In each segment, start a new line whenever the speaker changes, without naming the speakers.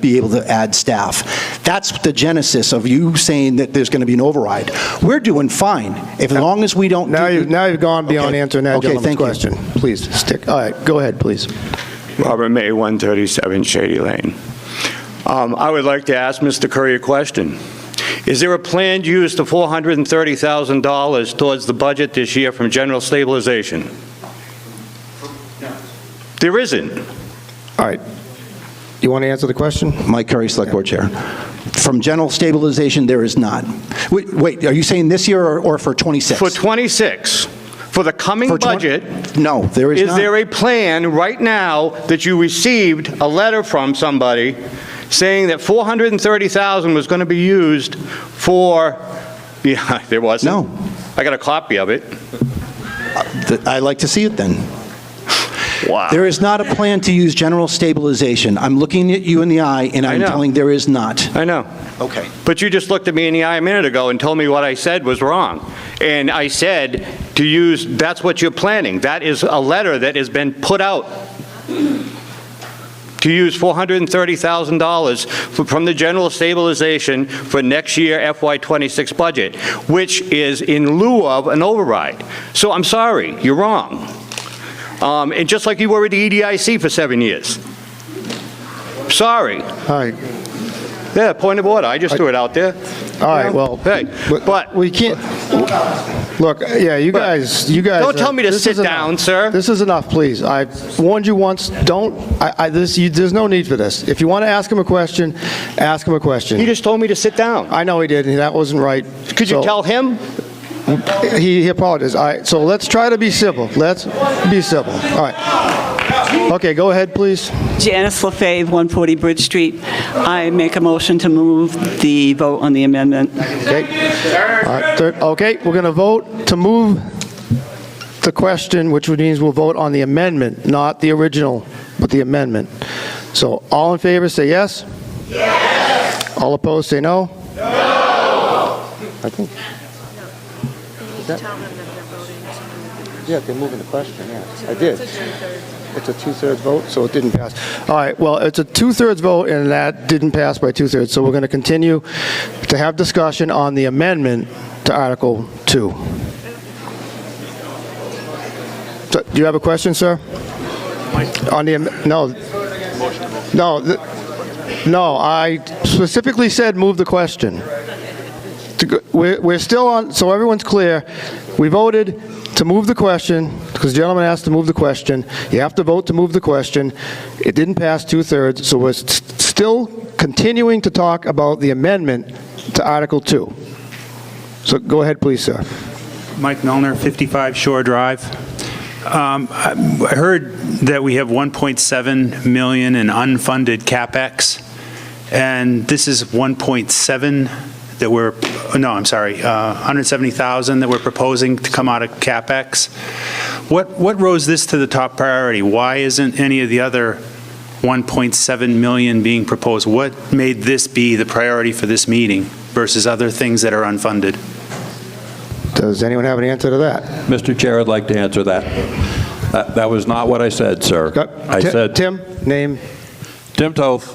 be able to add staff. That's the genesis of you saying that there's going to be an override. We're doing fine, if, as long as we don't.
Now
do-
you've, now you've gone beyond
Okay.
answering that
Okay,
gentleman's
thank you.
question. Please, stick, all right, go ahead, please.
Robert May, 137 Shady Lane. Um, I would like to ask Mr. Curry a question. Is there a planned use of $430,000 towards the budget this year from general stabilization? There isn't.
All right. You want to answer the question?
Mike Curry, Select Board Chair. From general stabilization, there is not. Wait- Wait, are you saying this year or- or for '26?
For 26, for the coming
For twen-
budget,
No, there is not.
is there a plan right now that you received a letter from somebody saying that 430,000 was going to be used for, yeah, there wasn't?
No.
I got a copy of it.
Th- I'd like to see it then.
Wow.
There is not a plan to use general stabilization. I'm looking at you in the eye, and I'm
know.
telling there is not.
I know.
Okay.
But you just looked at me in the eye a minute ago and told me what I said was wrong. And I said to use, that's what you're planning. That is a letter that has been put out to use $430,000 for- from the general stabilization for next year FY26 budget, which is in lieu of an override. So I'm sorry, you're wrong. Um, And just like you were at the EDIC for seven years. Sorry.
All right,
Yeah, point of order, I just threw it out there.
all right, well.
Hey, but-
We can't, look, yeah, you guys, you guys.
Don't tell me to
this
sit
is enough.
down, sir.
This is enough, please. I warned you once, don't, I, I, this, you, there's no need for this. If you want to ask him a question, ask him a
He
question.
just told me to sit down.
I know he did, and that wasn't right.
Could you
so-
tell him?
He he apologized. All right, so let's try to be civil. Let's be civil. All right. Okay, go ahead, please.
Janice LaFave, 140 Bridge Street. I make a motion to move the vote on the amendment.
Okay. All right, third- Okay, we're going to vote to move the question, which means we'll vote on the amendment, not the original, but the amendment. So all in favor, say yes? Yes. All opposed, say no? No. I think,
tell them that they're voting to move the
yeah, they're moving the question, yes. I did. It's a two-thirds vote, so it didn't pass. All right, well, it's a two-thirds vote, and that didn't pass by two-thirds, so we're going to continue to have discussion on the amendment to Article 2. So, Do you have a question, sir? On the, am- no, no, th- no, I specifically said move the question. To go- We're we're still on, so everyone's clear, we voted to move the question, because the gentleman asked to move the question. You have to vote to move the question. It didn't pass two-thirds, so we're s- still continuing to talk about the amendment to Article 2. So go ahead, please, sir.
Mike Melner, 55 Shore Drive. Um, I I heard that we have 1.7 million in unfunded CapEx, and this is 1.7 that we're, no, I'm sorry, uh, 170,000 that we're proposing to come out of CapEx. What, what rose this to the top priority? Why isn't any of the other 1.7 million being proposed? What made this be the priority for this meeting versus other things that are unfunded?
Does anyone have an answer to that?
Mr. Chair, I'd like to answer that. That that was not what I said, sir.
Go-
I
Ti-
said,
Tim, name,
Tim Toth,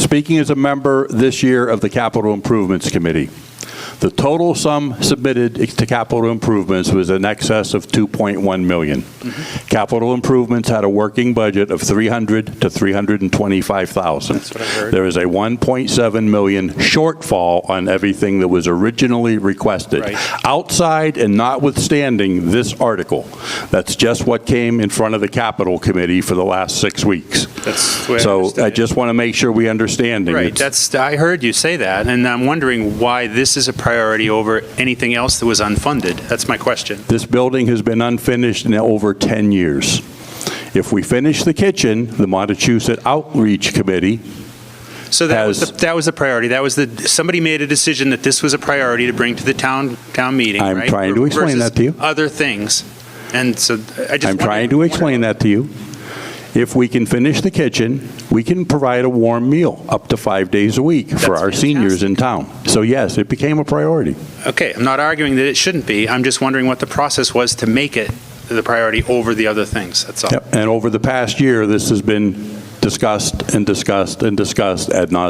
speaking as a member this year of the Capital Improvements Committee, the total sum submitted to capital improvements was in excess of 2.1 million. Capital improvements had a working budget of 300 to 325,000. There is a 1.7 million shortfall on everything that was originally requested.
Right.
Outside and notwithstanding this article, that's just what came in front of the Capital Committee for the last six weeks.
That's the way I
So
understand
I
it.
just want to make sure we understand.
Right, that's, I heard you say that, and I'm wondering why this is a priority over anything else that was unfunded. That's my question.
This building has been unfinished in over 10 years. If we finish the kitchen, the Montechusett Outreach Committee,
So that was,
Has-
the- that was the priority, that was the, somebody made a decision that this was a priority to bring to the town, town meeting,
I'm
right?
trying to explain
Versus
that to you.
other things, and so I just.
I'm trying to explain that to you. If we can finish the kitchen, we can provide a warm meal up to five days a week for
That's
our seniors in town. So yes, it became a priority.
Okay, I'm not arguing that it shouldn't be, I'm just wondering what the process was to make it the priority over the other things, that's all.
Yep. And over the past year, this has been discussed and discussed and discussed ad nauseam.